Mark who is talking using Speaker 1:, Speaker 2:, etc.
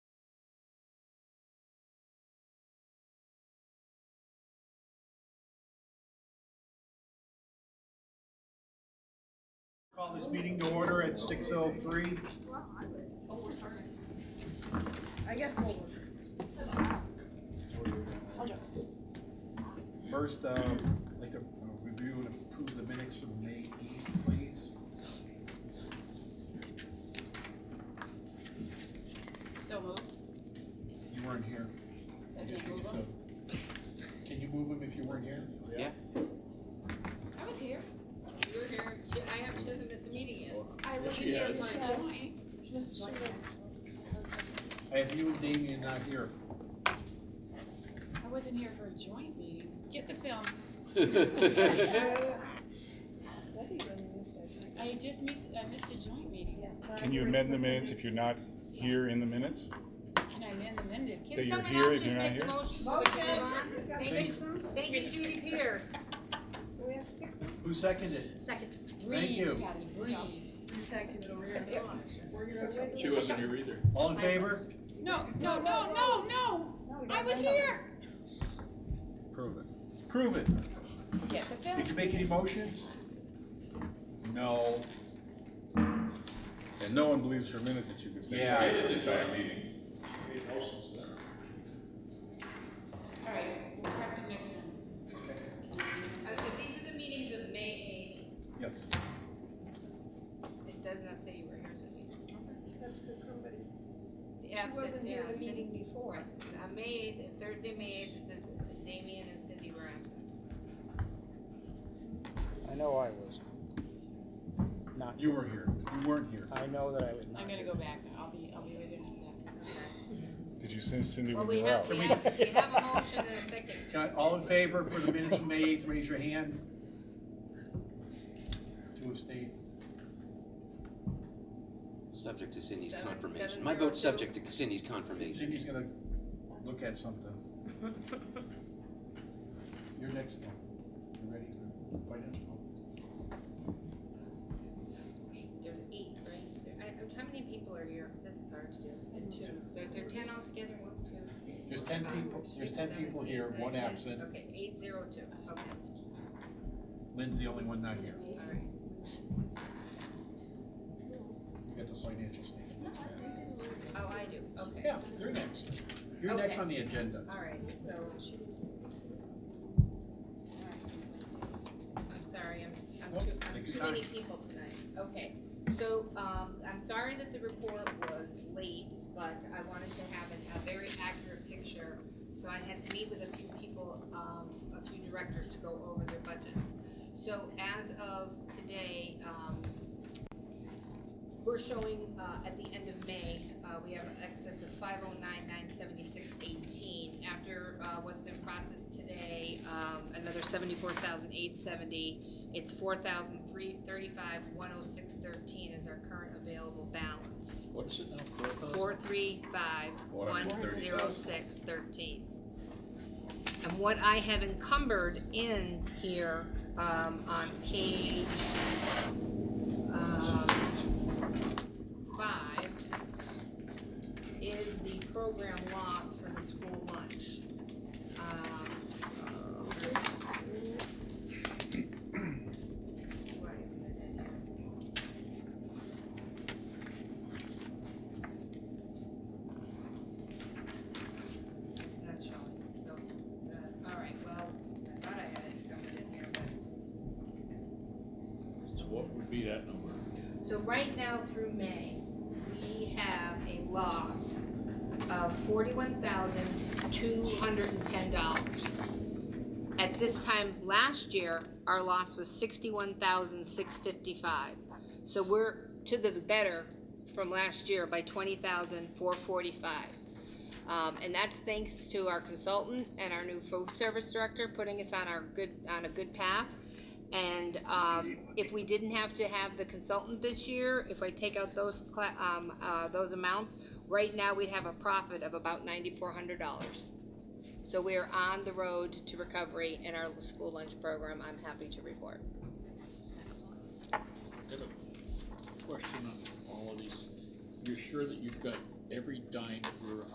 Speaker 1: Call this meeting to order at six oh three.
Speaker 2: I guess we'll work.
Speaker 1: First, um, I'd like to review and approve the minutes from May eighth, please.
Speaker 3: So moved.
Speaker 1: You weren't here. I guess you could say- Can you move them if you weren't here?
Speaker 3: I was here. You were here. She, I have, she doesn't miss a meeting yet.
Speaker 2: I will
Speaker 1: she
Speaker 2: be here.
Speaker 1: is.
Speaker 2: for
Speaker 3: Yes.
Speaker 2: joint.
Speaker 1: I have you and Damian not here.
Speaker 2: I wasn't here for a joint meeting. Get the film. I just missed, I missed the joint meeting.
Speaker 4: Can you amend the minutes if you're not here in the minutes?
Speaker 2: Can I amend the minute?
Speaker 4: That
Speaker 3: Can
Speaker 4: you're
Speaker 3: someone
Speaker 4: here
Speaker 3: else
Speaker 4: if
Speaker 3: just
Speaker 4: you're
Speaker 3: make the
Speaker 4: not
Speaker 3: motion so we can move on? Thank you, thank you Judy Pierce.
Speaker 1: Who seconded?
Speaker 3: Second.
Speaker 1: you.
Speaker 2: Breathe, Patty, breathe.
Speaker 5: She wasn't here either.
Speaker 1: All in favor?
Speaker 2: No, no, no, no, no! I was here!
Speaker 1: Prove it. Prove it.
Speaker 2: Get the film.
Speaker 1: Did you make any motions? No.
Speaker 4: And no one believes for a minute that you can stay.
Speaker 1: Yeah.
Speaker 2: Alright, we'll prep it next time.
Speaker 3: Uh, so these are the meetings of May
Speaker 1: Yes.
Speaker 3: eighth. It does not say you were here, Cindy.
Speaker 6: That's because somebody,
Speaker 3: The
Speaker 6: she
Speaker 3: absent,
Speaker 6: wasn't here
Speaker 3: yeah,
Speaker 6: the
Speaker 3: Cindy.
Speaker 6: meeting before.
Speaker 3: Right. Uh, May eighth, and Thursday, May eighth, it says Damian and Cindy were absent.
Speaker 7: I know I was. Not,
Speaker 1: You were here. You weren't here.
Speaker 7: I know that I was not.
Speaker 2: I'm gonna go back. I'll be, I'll be with you in a sec.
Speaker 4: Did you send Cindy
Speaker 3: Well,
Speaker 4: when
Speaker 3: we
Speaker 4: you were out?
Speaker 3: have, we have, we have a motion and a second.
Speaker 1: Got- all in favor for the minutes from May eighth, raise your hand. Two abstain.
Speaker 8: Subject to Cindy's
Speaker 3: Seven- seven
Speaker 8: confirmation. My
Speaker 3: zero
Speaker 8: vote's
Speaker 3: two.
Speaker 8: subject to Cindy's confirmation.
Speaker 1: Cindy's gonna look at something. You're next now. You ready? Financial.
Speaker 3: There's eight, right? Is there- I- I- How many people are here? This is hard to do. There, there are ten altogether, one, two,
Speaker 1: There's ten
Speaker 3: five,
Speaker 1: people,
Speaker 3: six,
Speaker 1: there's ten
Speaker 3: seven,
Speaker 1: people
Speaker 3: eight,
Speaker 1: here,
Speaker 3: nine,
Speaker 1: one
Speaker 3: ten.
Speaker 1: absent.
Speaker 3: Okay, eight, zero, two, okay,
Speaker 1: Lynn's the only one not here.
Speaker 3: all right.
Speaker 1: You got the financial statement.
Speaker 3: Oh, I do, okay,
Speaker 1: Yeah, you're next. You're next on the agenda.
Speaker 3: all right, so. I'm sorry, I'm, I'm
Speaker 1: Nope,
Speaker 3: too, I'm
Speaker 1: take
Speaker 3: too
Speaker 1: your
Speaker 3: many people tonight. Okay, so, um, I'm sorry that the report was late, but I wanted to have a, a very accurate picture. So I had to meet with a few people, um, a few directors to go over their budgets. So as of today, um, we're showing, uh, at the end of May, uh, we have an excess of five oh nine, nine seventy-six, eighteen. After, uh, what's been processed today, um, another seventy-four thousand, eight seventy. It's four thousand, three thirty-five, one oh six, thirteen is our current available balance.
Speaker 5: What is it now, four thousand?
Speaker 3: Four three five, one zero six, thirteen. And what I have encumbered in here, um, on page, um, five, is the program loss for the school lunch. Um, uh, why isn't it in here? It's not showing, so, uh, all right, well, I thought I had it covered in here, but
Speaker 5: So what would be that number?
Speaker 3: So right now through May, we have a loss of forty-one thousand, two hundred and ten dollars. At this time last year, our loss was sixty-one thousand, six fifty-five. So we're to the better from last year by twenty thousand, four forty-five. Um, and that's thanks to our consultant and our new food service director putting us on our good, on a good path. And, um, if we didn't have to have the consultant this year, if I take out those cla- um, uh, those amounts, right now we'd have a profit of about ninety-four hundred dollars. So we're on the road to recovery in our school lunch program, I'm happy to report.
Speaker 5: Got a question on all of these. You're sure that you've got every dime that we're